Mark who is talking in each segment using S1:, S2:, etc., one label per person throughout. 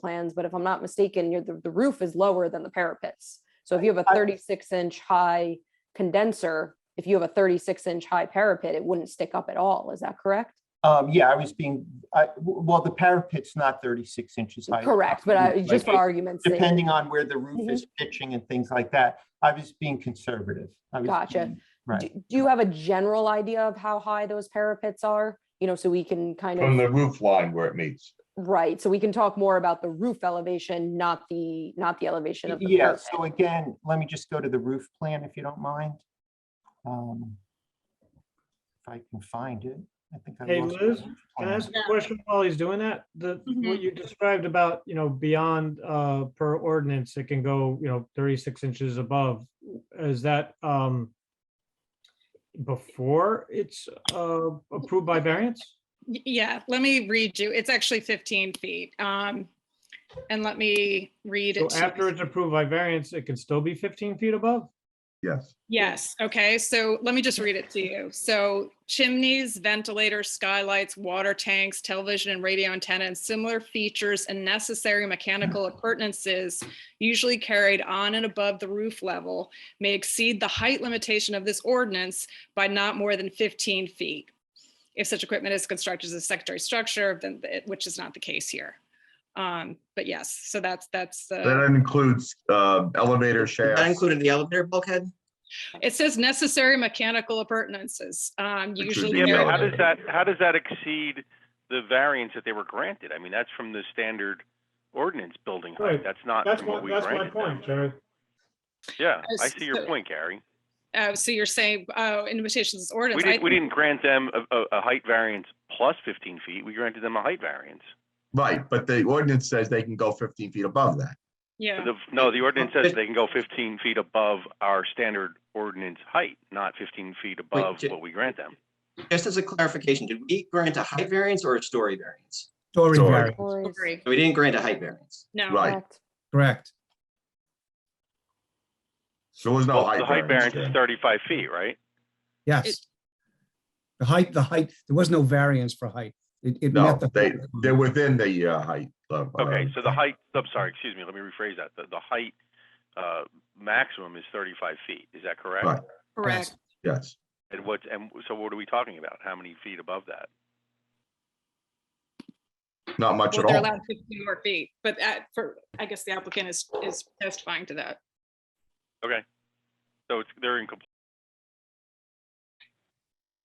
S1: plans, but if I'm not mistaken, you're, the, the roof is lower than the parapets. So if you have a
S2: I-
S1: thirty-six inch high condenser, if you have a thirty-six inch high parapet, it wouldn't stick up at all. Is that correct?
S2: Um, yeah, I was being, I, w- well, the parapet's not thirty-six inches high.
S1: Correct, but I, just for
S2: Like,
S1: argument's sake.
S2: Depending on where the roof
S1: Mhm.
S2: is pitching and things like that, I was being conservative. I was
S1: Gotcha.
S2: being-
S1: Do
S2: Right,
S1: do you have a general idea of how high those parapets are? You know, so we can kind
S3: From
S1: of,
S3: the roof line where it meets.
S1: right, so we can talk more about the roof elevation, not the, not the elevation of the
S2: yeah,
S1: parapet.
S2: so again, let me just go to the roof plan if you don't mind. Um, If I can find it, I think. I
S4: Hey,
S2: lost
S4: Liz,
S2: the roof
S4: Can I
S2: plan.
S4: ask a question while he's doing that? The,
S5: Mhm.
S4: what you described about, you know, beyond, uh, per ordinance, it can go, you know, thirty-six inches above. Is that, um, before it's, uh, approved by variance?
S5: Y- Yeah, let me read you. It's actually 15 feet. Um, And let me read
S4: So
S5: it. to
S4: after
S5: you.
S4: it's approved by variance, it can still be fifteen feet above?
S3: Yes.
S5: Yes, okay, so let me just read it to you. So chimneys, ventilators, skylights, water tanks, television and radio antenna, and similar features and necessary mechanical appurtenances usually carried on and above the roof level may exceed the height limitation of this ordinance by not more than 15 feet. If such equipment is constructed as a secondary structure, then, it- which is not the case here. Um, But yes, so that's, that's,
S3: That
S5: the.
S3: includes uh, elevator
S6: That
S3: shafts,
S6: included the elevator bulkhead?
S5: it says necessary mechanical appurtenances. um,
S3: Which would
S5: Usually.
S3: be
S7: Yeah,
S5: carried
S7: but how
S3: Maryland.
S7: does that, how does that exceed the variance that they were granted? I mean, that's from the standard ordinance building
S4: Right.
S7: height. That's not
S4: That's
S7: from
S4: my,
S7: what we
S4: that's my
S7: granted.
S4: point, Jerry.
S7: Yeah,
S5: Uh,
S7: I see
S5: so-
S7: your point, Gary.
S5: Uh, so you're saying, oh, invitations is ordinance.
S7: We
S5: I
S7: didn't, we
S5: think-
S7: didn't grant them a, a, a height variance plus fifteen feet. We granted them a height variance.
S3: right, but the ordinance says they can go fifteen feet above that.
S5: Yeah,
S7: The, no, the ordinance says they can go fifteen feet above our standard ordinance height, not fifteen feet above
S6: J-
S7: what we grant them.
S6: Just as a clarification, did we grant a height variance or a story variance?
S8: Story
S3: Story.
S8: variance,
S1: Stories,
S5: agree.
S6: We didn't grant a height variance.
S5: No,
S3: Right.
S1: correct.
S8: correct.
S3: There was no
S7: Well,
S3: height.
S7: The height variance is
S3: there.
S7: thirty-five feet, right?
S5: It-
S8: Yes. The height, the height, there was no variance for height. It, it
S3: No,
S8: met the.
S3: they, they're within the uh, height. of, uh,
S7: Okay, so the height, I'm sorry, excuse me, let me rephrase that. The, the height, uh, maximum is thirty-five feet, is that correct?
S3: Right.
S5: correct.
S3: Yes,
S7: And what, and so what are we talking about? How many feet above that?
S3: not much
S5: Well,
S3: at
S5: they're
S3: all.
S5: allowed fifteen more feet, but uh, for, I guess the applicant is, is testifying to that.
S7: So it's, they're in. compl-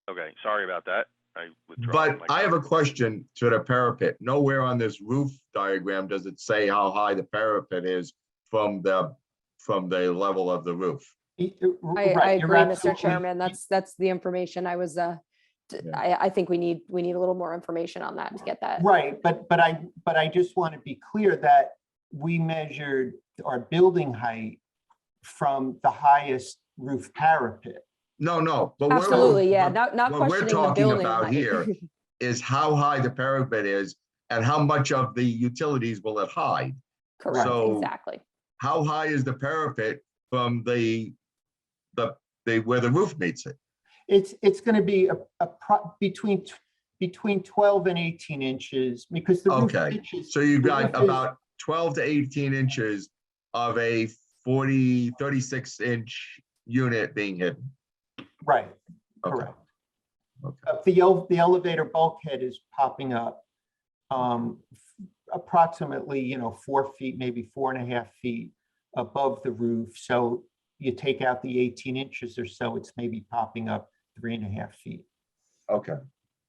S7: Okay, sorry about that. I withdraw.
S3: But
S7: my
S3: I have a
S7: comment.
S3: question to the parapet. Nowhere on this roof diagram does it say how high the parapet is from the, from the level of the roof.
S2: Y- uh, r-
S1: I, I
S2: right, you're
S1: agree, Mr.
S2: absolutely-
S1: Chairman, that's, that's the information I was, uh, d-
S3: Yeah.
S1: I, I think we need, we need a little more information on that to get that.
S2: Right, but, but I, but I just want to be clear that we measured our building height from the highest roof parapet.
S3: No, no, but. we're-
S1: Absolutely, yeah, not, not
S3: what we're
S1: questioning the
S3: talking
S1: building.
S3: about
S1: height.
S3: here Is how high the parapet is and how much of the utilities will it hide?
S1: Correct,
S3: So-
S1: exactly.
S3: How high is the parapet from the, the, the, where the roof meets it?
S2: It's, it's going to be a, a pro, between, tw- between twelve and eighteen inches because the roof
S3: Okay,
S2: pitches.
S3: So you've got
S2: Roof is-
S3: about twelve to eighteen inches of a 40, 36 inch unit being hidden.
S2: Right,
S3: Okay,
S2: correct.
S3: Okay.
S2: Uh, The, el- the elevator bulkhead is popping up um, f- approximately, you know, four feet, maybe four and a half feet above the roof. So you take out the eighteen inches or so, it's maybe popping up three and a half feet
S3: okay.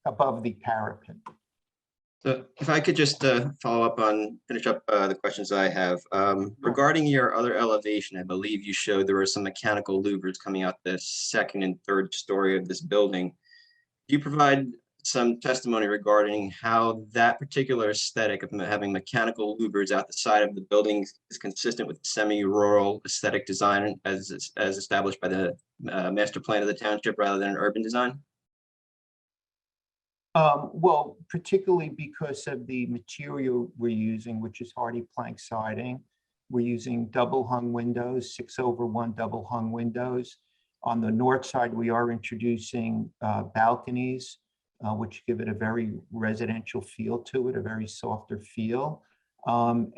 S2: above the parapet.
S6: So if I could just uh, follow up on, finish up uh, the questions I have. Um, Regarding your other elevation, I believe you showed there were some mechanical louvers coming out the second and third story of this building. Do you provide some testimony regarding how that particular aesthetic of having mechanical louvers out the side of the building is consistent with semi-rural aesthetic design as, as established by the uh, master plan of the township rather than an urban design?
S2: Um, Well, particularly because of the material we're using, which is hardy plank siding. We're using double hung windows, six over one double hung windows. On the north side, we are introducing uh, balconies, uh, which give it a very residential feel to it, a very softer feel. Um,